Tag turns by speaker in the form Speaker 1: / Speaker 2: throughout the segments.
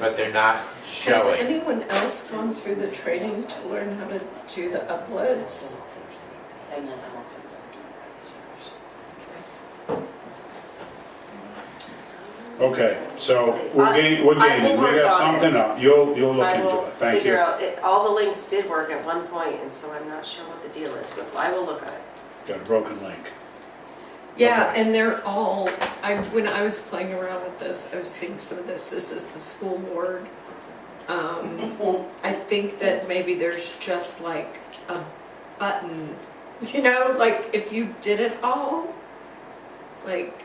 Speaker 1: but they're not
Speaker 2: Has
Speaker 1: showing.
Speaker 2: anyone else gone through the training to learn how to do the uploads?
Speaker 3: And then I'll come back to that.
Speaker 4: Okay, so we're game, we're
Speaker 3: I- I will
Speaker 4: game. We
Speaker 3: work
Speaker 4: got
Speaker 3: on it.
Speaker 4: something up. You'll, you'll look
Speaker 3: I
Speaker 4: into
Speaker 3: will
Speaker 4: it. Thank
Speaker 3: figure
Speaker 4: you.
Speaker 3: out, it- all the links did work at one point, and so I'm not sure what the deal is, but I will look at it.
Speaker 4: Got a broken link.
Speaker 2: Yeah,
Speaker 4: Okay.
Speaker 2: and they're all, I, when I was playing around with this, I was seeing some of this, this is the school board. Um, I think that maybe there's just like a button, you know, like if you did it all, like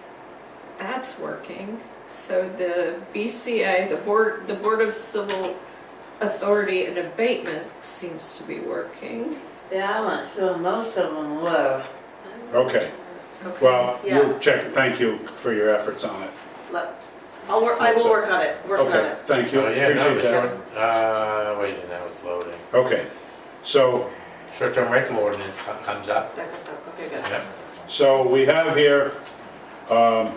Speaker 2: that's working. So the BCA, the Board, the Board of Civil Authority and Abatement seems to be working.
Speaker 5: Yeah, I went through and most of them were.
Speaker 4: Okay, well, you'll check, thank you for your efforts on it.
Speaker 3: Let- I'll work, I will work on it, work on
Speaker 4: Okay,
Speaker 3: it.
Speaker 4: thank you,
Speaker 1: Oh, yeah, no,
Speaker 4: appreciate
Speaker 1: the
Speaker 4: that.
Speaker 1: short, uh, wait, a minute, that was loading.
Speaker 4: Okay, so,
Speaker 1: Short-term rental ordinance co- comes up.
Speaker 3: That comes up, okay, good.
Speaker 1: Yep.
Speaker 4: so we have here, um,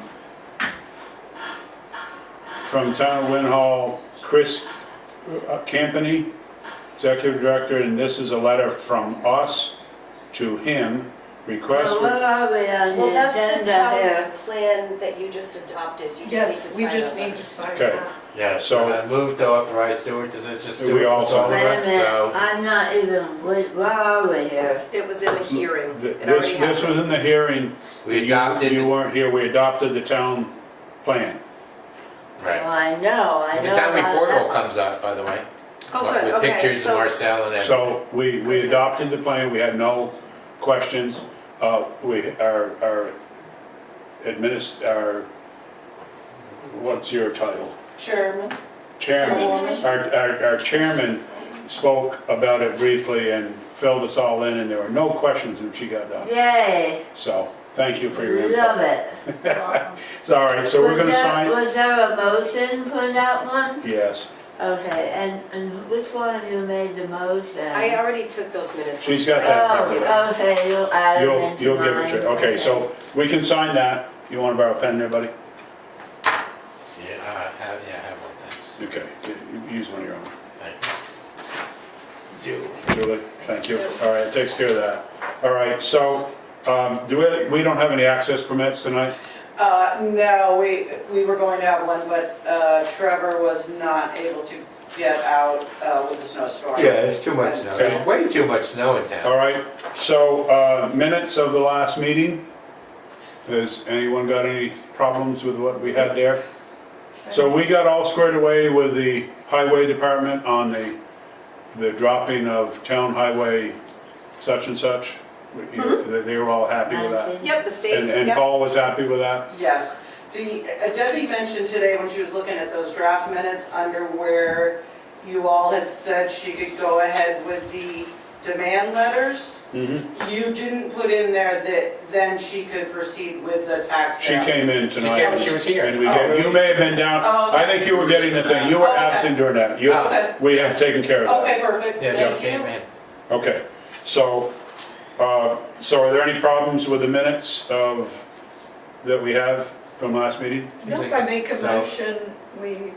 Speaker 4: from Town of Lynn Hall, Chris uh, Campany, Executive Director, and this is a letter from us to him, request.
Speaker 5: Well, where are we on
Speaker 3: Well,
Speaker 5: the
Speaker 3: that's the
Speaker 5: agenda
Speaker 3: town
Speaker 5: here?
Speaker 3: plan that you just adopted, you just need to
Speaker 2: Yes,
Speaker 3: sign
Speaker 2: we just
Speaker 3: over.
Speaker 2: need to sign
Speaker 4: Okay.
Speaker 2: that.
Speaker 1: Yeah,
Speaker 4: So-
Speaker 1: so I moved to authorize Stuart, does this just do
Speaker 4: We
Speaker 1: it with all
Speaker 4: all
Speaker 1: of
Speaker 4: sign.
Speaker 5: Wait
Speaker 1: us?
Speaker 5: a minute,
Speaker 1: So,
Speaker 5: I'm not even, wait, where are we here?
Speaker 3: It was in the hearing,
Speaker 4: Th-
Speaker 3: it already
Speaker 4: This, this
Speaker 3: happened.
Speaker 4: was in the hearing.
Speaker 1: we
Speaker 4: You-
Speaker 1: adopted,
Speaker 4: You
Speaker 1: the-
Speaker 4: weren't here, we adopted the town plan.
Speaker 5: Well,
Speaker 1: right.
Speaker 5: I know, I know.
Speaker 1: The town
Speaker 5: about
Speaker 1: report all
Speaker 5: that.
Speaker 1: comes up, by the way.
Speaker 3: Oh, good,
Speaker 1: With
Speaker 3: okay,
Speaker 1: pictures of
Speaker 3: so,
Speaker 1: Marcel and everything.
Speaker 4: So we, we adopted the plan, we had no questions. Uh, we, our, our adminis, our, what's your title?
Speaker 2: Chairman.
Speaker 4: Chairman, our, our, our chairman spoke about it briefly and filled us all in and there were no questions when she got done.
Speaker 5: Yay,
Speaker 4: So, thank you for your
Speaker 5: love
Speaker 4: input.
Speaker 5: it.
Speaker 4: So, All right, so we're
Speaker 5: Was
Speaker 4: gonna
Speaker 5: there-
Speaker 4: sign,
Speaker 5: Was there a motion for that one?
Speaker 4: yes,
Speaker 5: Okay, and, and which one of you made the motion?
Speaker 3: I already took those minutes.
Speaker 4: she's got that. covered.
Speaker 5: Oh, okay, you'll add them
Speaker 4: You'll,
Speaker 5: into
Speaker 4: you'll give it
Speaker 5: mine.
Speaker 4: to, her. okay, so we can sign that. You wanna borrow a pen there, buddy?
Speaker 1: Yeah, uh, have, yeah, have one, thanks.
Speaker 4: Okay, you- use one of your own.
Speaker 1: Thanks. You.
Speaker 4: Julie, thank you. All right, it takes care of that. All right, so, um, do we, we don't have any access permits tonight?
Speaker 6: Uh, no, we, we were going to have one, but uh, Trevor was not able to get out uh, with the snowstorm.
Speaker 1: there's too
Speaker 6: much snow.
Speaker 4: There's
Speaker 1: way too much snow in town.
Speaker 4: All right, so, uh, minutes of the last meeting. Has anyone got any problems with what we had there? So we got all squared away with the highway department on the, the dropping of town highway such and such. You-
Speaker 6: Mm-hmm.
Speaker 4: They they were all happy with that.
Speaker 3: Yep, the state,
Speaker 4: And, and
Speaker 3: yep.
Speaker 4: Paul was happy with that?
Speaker 6: Yes. The, uh, Debbie mentioned today when she was looking at those draft minutes under where you all had said she could go ahead with the demand letters.
Speaker 4: Mm-hmm.
Speaker 6: You didn't put in there that then she could proceed with the tax
Speaker 4: She
Speaker 6: sale.
Speaker 4: came in tonight.
Speaker 1: came, she was here.
Speaker 4: And we
Speaker 6: Oh,
Speaker 4: get, you
Speaker 6: really?
Speaker 4: may have been down,
Speaker 6: Oh,
Speaker 4: I think you were getting the thing, you were
Speaker 6: Oh, okay.
Speaker 4: absent during that. You,
Speaker 6: Okay.
Speaker 4: we have taken care of that.
Speaker 6: Okay, perfect.
Speaker 1: Oh. Yeah,
Speaker 6: Thank
Speaker 1: Joe
Speaker 6: you.
Speaker 1: came in.
Speaker 4: Okay, so, uh, so are there any problems with the minutes of, that we have from last meeting?
Speaker 2: Nope, I make a
Speaker 1: So-
Speaker 2: motion, we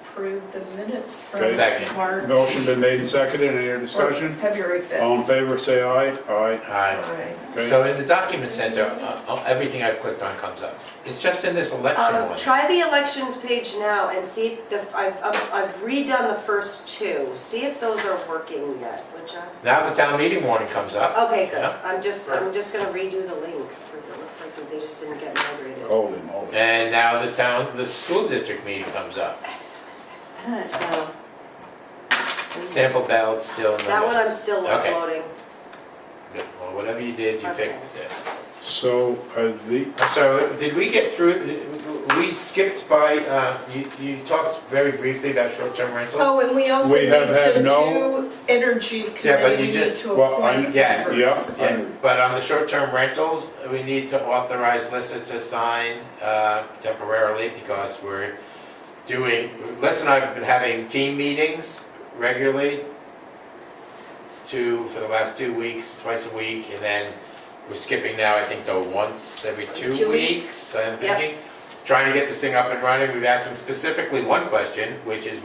Speaker 2: approve the minutes from
Speaker 4: Okay.
Speaker 1: Second.
Speaker 2: March.
Speaker 4: Motion been made and seconded, any other
Speaker 2: or
Speaker 4: discussion?
Speaker 2: February 5th.
Speaker 4: All in favor, say aye. Aye.
Speaker 1: Aye.
Speaker 2: Aye.
Speaker 4: Okay.
Speaker 1: So in the document center, uh, uh, everything I've clicked on comes up. It's just in this election
Speaker 3: Um,
Speaker 1: one.
Speaker 3: try the elections page now and see if the, I've, I've- I've redone the first two, see if those are working yet, would you?
Speaker 1: Now the town meeting warning comes up.
Speaker 3: Okay, good,
Speaker 1: Yeah.
Speaker 3: I'm just, I'm just gonna redo the links, because it looks like they just didn't get migrated.
Speaker 4: Holy moly.
Speaker 1: And now the town, the school district meeting comes up.
Speaker 3: Excellent, excellent.
Speaker 5: Alright, so-
Speaker 1: Sample ballot's still in the
Speaker 3: That one
Speaker 1: middle.
Speaker 3: I'm still
Speaker 1: Okay.
Speaker 3: uploading.
Speaker 1: Good. Well, whatever you did, you
Speaker 3: Okay.
Speaker 1: fixed it.
Speaker 4: So, are the,
Speaker 1: I'm sorry, did we get through, we skipped by, uh, you, you talked very briefly about short-term rentals?
Speaker 2: Oh, and we also
Speaker 4: We
Speaker 2: need
Speaker 4: have had
Speaker 2: to
Speaker 4: no-
Speaker 2: do energy
Speaker 1: Yeah, but
Speaker 2: committee,
Speaker 1: you
Speaker 2: we need
Speaker 1: just-
Speaker 2: to
Speaker 4: well, I-
Speaker 2: appoint
Speaker 1: yeah,
Speaker 2: members.
Speaker 4: yeah.
Speaker 1: Yeah, But on the short-term rentals, we need to authorize Lissa to sign uh, temporarily because we're doing, Lissa and I have been having team meetings regularly, two, for the last two weeks, twice a week, and then we're skipping now, I think, to once every two
Speaker 3: Two
Speaker 1: weeks, I'm
Speaker 3: Yep.
Speaker 1: thinking. Trying to get this thing up and running, we've asked them specifically one question, which is